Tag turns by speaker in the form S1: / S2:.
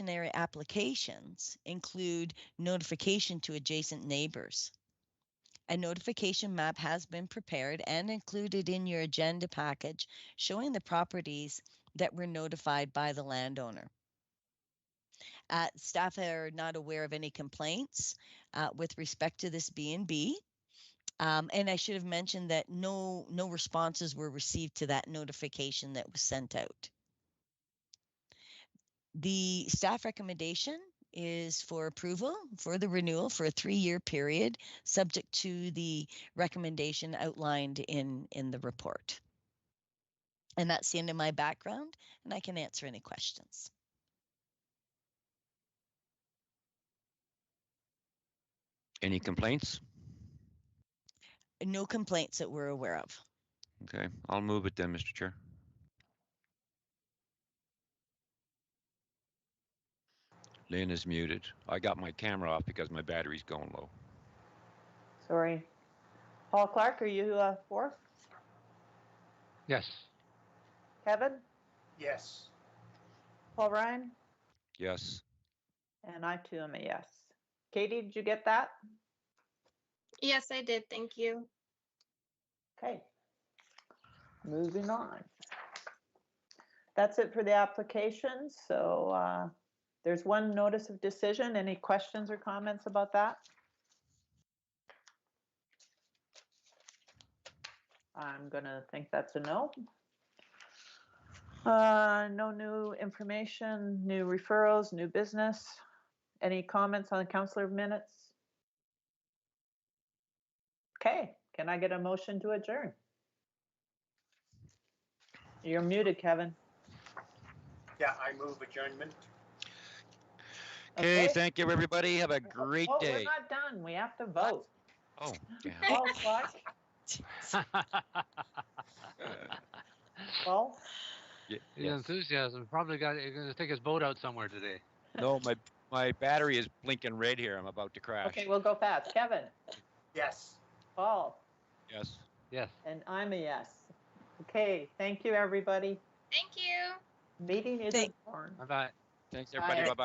S1: Discretionary applications include notification to adjacent neighbors. A notification map has been prepared and included in your agenda package showing the properties that were notified by the landowner. Uh, staff are not aware of any complaints uh, with respect to this B and B. Um, and I should have mentioned that no, no responses were received to that notification that was sent out. The staff recommendation is for approval for the renewal for a three-year period, subject to the recommendation outlined in, in the report. And that's the end of my background, and I can answer any questions.
S2: Any complaints?
S1: No complaints that we're aware of.
S2: Okay, I'll move it then, Mr. Chair. Lynn is muted. I got my camera off because my battery's going low.
S3: Sorry. Paul Clark, are you uh, for?
S4: Yes.
S3: Kevin?
S5: Yes.
S3: Paul Ryan?
S2: Yes,
S3: And I too am a yes. Katie, did you get that?
S6: Yes, I did. Thank you.
S3: Okay. Moving on. That's it for the application. So uh, there's one notice of decision. Any questions or comments about that? I'm gonna think that's a no. Uh, No new information, new referrals, new business. Any comments on the counselor minutes? Okay, can I get a motion to adjourn? You're muted, Kevin.
S5: Yeah, I move adjournment.
S2: okay, thank you, everybody. Have a
S3: Oh,
S2: great
S3: oh, We're
S2: day.
S3: not done. We have to vote.
S2: Oh, yeah.
S3: Paul Clark, Paul,
S2: Ye-
S4: The
S2: yes.
S4: enthusiasm probably got, you're gonna take his boat out somewhere today.
S2: No, my, my battery is blinking red here. I'm about to crash.
S3: okay, we'll go fast. Kevin,
S5: Yes.
S3: Paul,
S2: Yes.
S4: Yes.
S3: and I'm a yes. Okay, thank you, everybody.
S6: Thank you.
S3: Meeting is
S1: Thank-
S3: adjourned.
S4: Bye-bye.
S2: Thanks, everybody.
S3: Bye.
S2: Bye-bye.